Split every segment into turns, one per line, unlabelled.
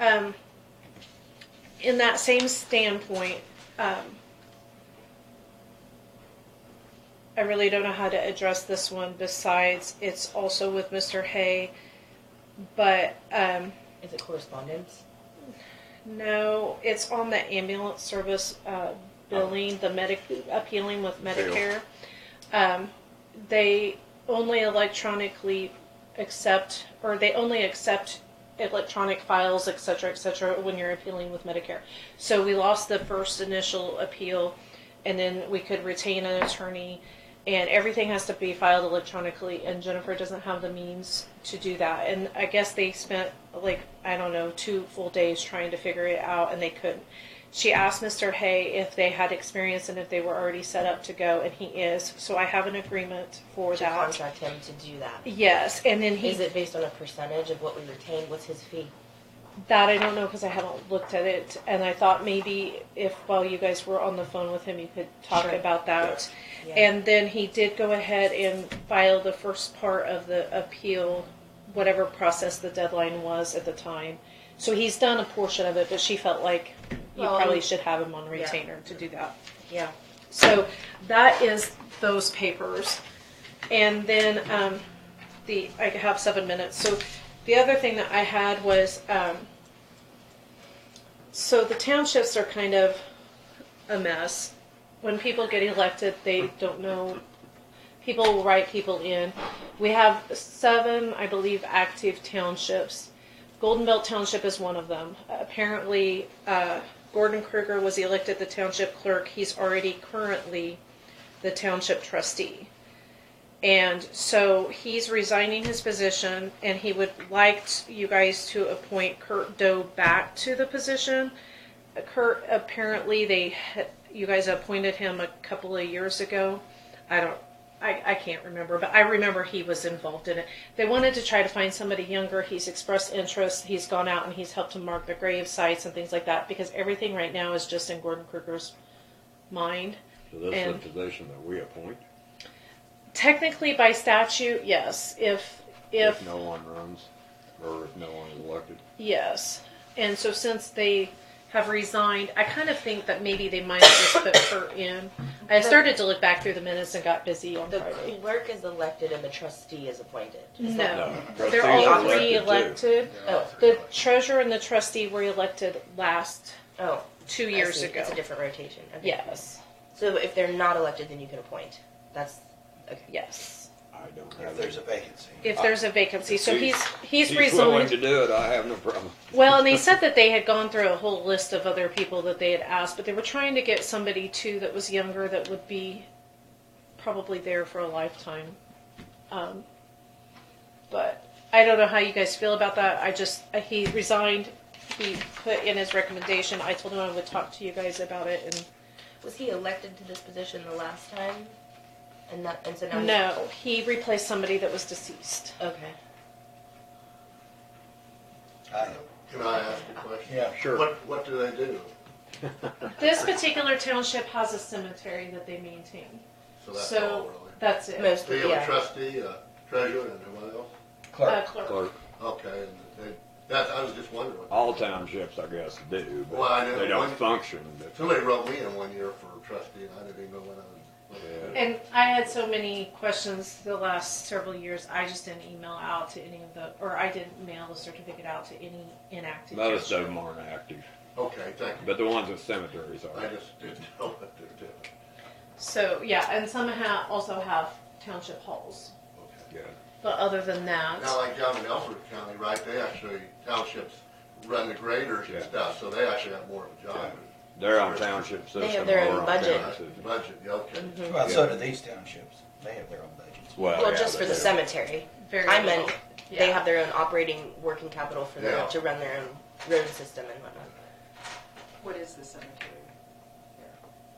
um, in that same standpoint, um, I really don't know how to address this one besides it's also with Mr. Hay, but um,
Is it correspondence?
no, it's on the ambulance service uh, billing, the medic appealing with Medicare. Um, they only electronically accept, or they only accept electronic files, et cetera, et cetera, when you're appealing with Medicare. So we lost the first initial appeal, and then we could retain an attorney, and everything has to be filed electronically, and Jennifer doesn't have the means to do that. And I guess they spent, like, I don't know, two full days trying to figure it out, and they couldn't. She asked Mr. Hay if they had experience and if they were already set up to go, and he is. So I have an agreement for
To
that.
contract him to do that.
Yes, and then he
Is it based on a percentage of what we retain? What's his fee?
That I don't know because I haven't looked at it, and I thought maybe if while you guys were on the phone with him, you could talk
Sure.
about that.
Yeah.
And then he did go ahead and file the first part of the appeal, whatever process the deadline was at the time. So he's done a portion of it, but she felt like you
Well,
probably
and-
should have him on
Yeah.
retainer to do that.
Yeah.
So that is those papers. And then um, the I have seven minutes. So the other thing that I had was um, so the townships are kind of a mess. When people get elected, they don't know. People will write people in. We have seven, I believe, active townships. Golden Belt Township is one of them. Apparently, uh, Gordon Kruger was elected the township clerk. He's already currently the township trustee. And so he's resigning his position, and he would like you guys to appoint Kurt Doe back to the position. Kurt, apparently, they had- you guys appointed him a couple of years ago. I don't, I, I can't remember, but I remember he was involved in it. They wanted to try to find somebody younger. He's expressed interest. He's gone out and he's helped to mark the grave sites and things like that because everything right now is just in Gordon Kruger's mind.
So that's
And-
the position that we appoint,
Technically, by statute, yes. If if,
if no one runs, or if no one is elected.
yes, and so since they have resigned, I kind of think that maybe they might have just put her in. I started to look back through the minutes and got busy on
The
Friday.
clerk is elected and the trustee is appointed. Is that-
No,
Trustees
they're
are
all
elected, too.
re-elected.
Oh,
The treasurer and the trustee were elected last
oh.
two
I
years
see.
ago.
It's a different rotation. Okay.
Yes,
So if they're not elected, then you can appoint. That's, okay.
yes.
Uh,
I don't
If
have
there's a
any.
vacancy.
If there's a vacancy, so
If
he's he's,
He's willing
resigned.
to do it, I have no problem.
Well, and they said that they had gone through a whole list of other people that they had asked, but they were trying to get somebody too that was younger that would be probably there for a lifetime. Um, but I don't know how you guys feel about that. I just uh, he resigned. He put in his recommendation. I told him I would talk to you guys about it,
Was he elected to this position the last time? And that, and so now
and
he's-
no, he replaced somebody that was deceased.
Okay.
I know.
Can I ask a question?
Yeah, sure.
What, what do they do?
This particular township has a cemetery that they maintain,
So that's
So-
all really.
that's it.
Do
Mostly,
you have a
yeah.
trustee, a treasurer, and who else?
Uh,
Clerk,
Okay, and they, that, I was just wondering.
all townships, I guess, do,
Well, I
but
know
they don't
one-
function, but
Somebody wrote me in one year for trustee, and I didn't even know what I was.
Yeah.
And I had so many questions the last several years, I just didn't email out to any of the, or I didn't mail the certificate out to any inactive.
most of
township.
them aren't active.
Okay, thank you.
But the ones with cemeteries
I
are.
just didn't know what they're doing.
So, yeah, and some ha also have township halls,
Okay.
Yeah.
but other than
Now,
that,
like down in Ellsworth County, right, they actually, townships run the graders and
Yeah.
stuff, so they actually have more of a job.
They're on township system.
They have their
we're
own
on
budget. Mm-hmm.
town
Right,
system.
Budget, yeah, okay.
Well, so do these townships. They have their own budgets.
Well,
Well,
yeah,
just for
they
the
do.
cemetery.
very.
I meant
little.
they
Yeah.
have their own operating working capital for their,
Yeah.
to run their own road system and whatnot.
What is the cemetery?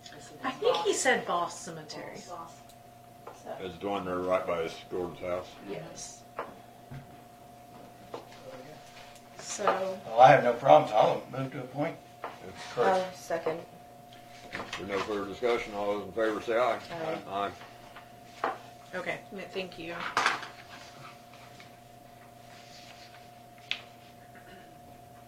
Is it
I think he
Boston?
said Boss Cemetery.
Boston.
So,
It's the one there right by Gordon's house.
Yes.
Oh,
So,
Well, I have no problems. I'll move to a point.
Correct.
Uh, second.
There's no further discussion. All those in favor say aye.
Aye.
Aye.
okay, thank you.